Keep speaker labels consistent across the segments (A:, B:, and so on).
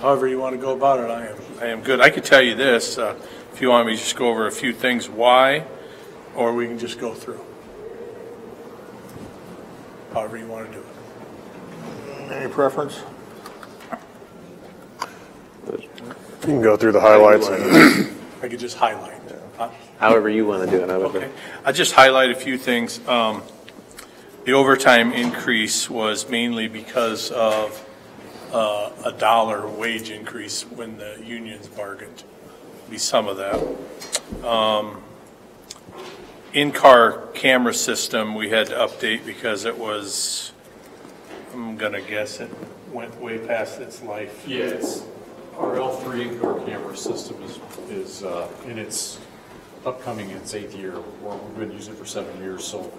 A: however you want to go about it, I am.
B: I am good. I could tell you this, uh, if you want me to just go over a few things, why,
A: Or we can just go through. However you want to do it.
C: Any preference?
D: You can go through the highlights.
A: I could just highlight.
B: Uh,
A: Huh?
E: However you want to do it. I would-
B: okay? I'll just highlight a few things. Um, The overtime increase was mainly because of uh, a dollar wage increase when the unions bargained, be some of that. Um, In-car camera system, we had to update because it was, I'm gonna guess it went way past its life.
F: Yeah, it's, our L3 indoor camera system is, is uh, in its upcoming, its eighth year. We're- We've been using it for seven years, so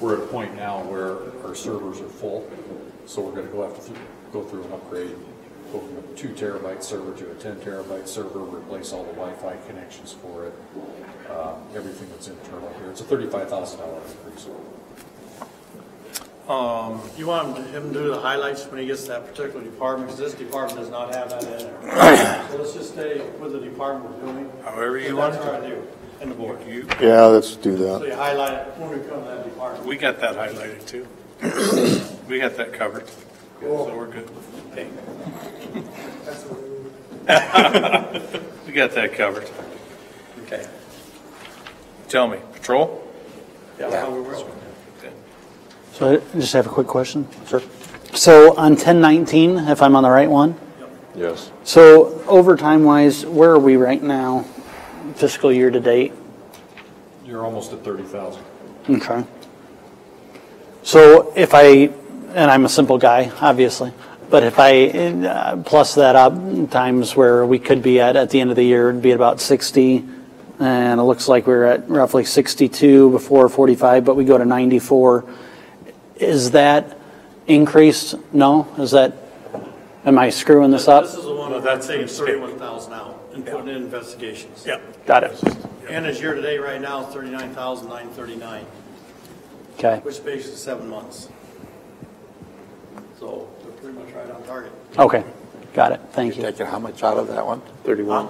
F: we're at a point now where our servers are full. So we're going to go have to go through an upgrade, go from a two terabyte server to a 10 terabyte server, replace all the Wi-Fi connections for it, uh, everything that's internal here. It's a $35,000 increase.
G: You want him to do the highlights when he gets to that particular department, because this department does not have that in there. So let's just stay with the department we're doing.
B: However you
G: But
B: want
G: That's
B: to.
G: our idea, and the board.
B: You-
D: Yeah, let's do
G: So
D: that.
G: you highlight it when we come to that department.
B: We got that highlighted too. We got that covered, so we're good. Hey. We got that covered.
G: Okay.
B: Tell me, patrol?
H: So I just have a quick question. Sure. So on 1019, if I'm on the right one,
C: Yes.
H: so overtime-wise, where are we right now fiscal year to date?
F: You're almost at 30,000.
H: Okay. So if I, and I'm a simple guy, obviously, but if I uh, plus that up times where we could be at, at the end of the year, it'd be at about 60. And it looks like we're at roughly 62 before 45, but we go to 94. Is that increased? No? Is that, am I screwing this
G: This
H: up?
G: is the one
B: No, that's
G: that's taking
B: mistake.
G: thirty-one thousand out and putting in investigations.
A: Yeah.
H: Got it.
G: And his year-to-date right now is thirty-nine thousand nine thirty-nine,
H: Okay.
G: which bases is seven months. So they're pretty much right on target.
H: Okay. Got it. Thank you.
C: Taking how much out of that one?
E: 31.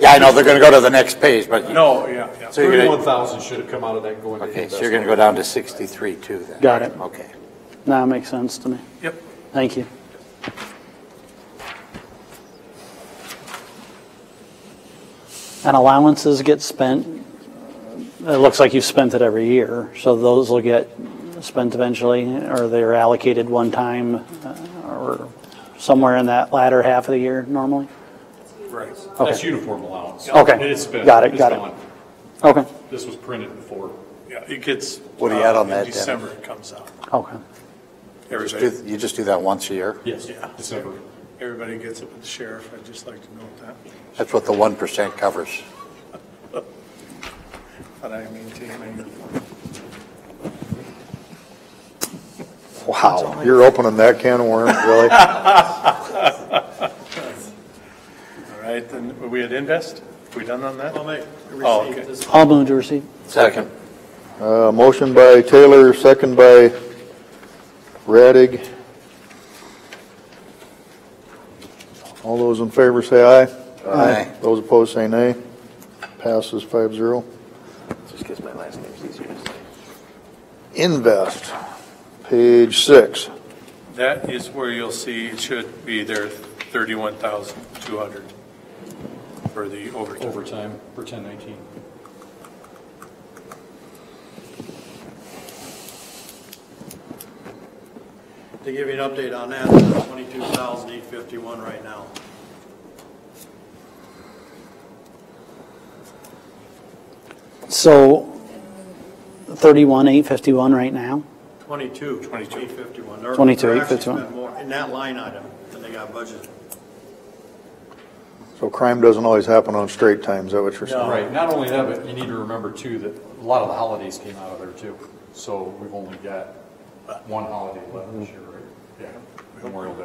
C: Yeah, I know, they're going to go to the next page, but,
B: No, yeah, yeah.
C: so you're going
F: 31,000 should have come out of that going
C: to,
F: to
C: okay,
F: investment.
C: so you're going to go down to 63 too then?
H: Got it.
C: Okay.
H: Now it makes sense to me.
B: Yep.
H: Thank you. And allowances get spent, it looks like you've spent it every year, so those will get spent eventually, or they're allocated one time, uh, or somewhere in that latter half of the year normally?
B: Right.
F: That's uniform allowance.
H: Okay.
F: It's been,
H: Got it,
F: it's
H: got it.
F: gone.
H: Okay,
F: This was printed before.
B: Yeah, it gets.
C: What do you add on
B: uh, in
C: that, Dennis?
B: December it comes out.
H: okay.
C: Just
B: Everybody,
C: do- You just do that once a year?
F: Yes.
B: Yeah.
F: December.
B: everybody gets it with the sheriff. I'd just like to know that,
C: That's what the 1% covers.
B: that I maintain my uniform.
C: Wow.
D: You're opening that can of worms, really?
B: All right, then we had invest? We done on that?
G: I'll make,
B: Oh, okay.
G: receive this
H: I'll move to receive.
C: Second.
D: Uh, motion by Taylor, second by Radig. All those in favor say aye.
C: Aye.
D: Those opposed say nay. Passes five zero.
E: Just because my last name's easier to say.
D: Invest, page six.
B: That is where you'll see, it should be there, 31,200 for the overtime.
F: overtime for 1019.
G: To give you an update on that, it's twenty-two thousand eight fifty-one right now.
H: So 31,851 right now?
G: Twenty-two.
B: 22.
G: Eight fifty-one. They're-
H: 22,
G: they're actually
H: 851.
G: spent more In that line item than they got budgeted.
D: So crime doesn't always happen on straight times, is that what you're saying?
F: Right, not only that, but you need to remember too, that a lot of the holidays came out of there too. So we've only got one holiday left this year, right? Yeah, Memorial Day.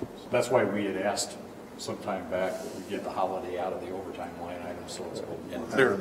F: So That's why we had asked some time back that we get the holiday out of the overtime line item, so it's. a little more-
B: There,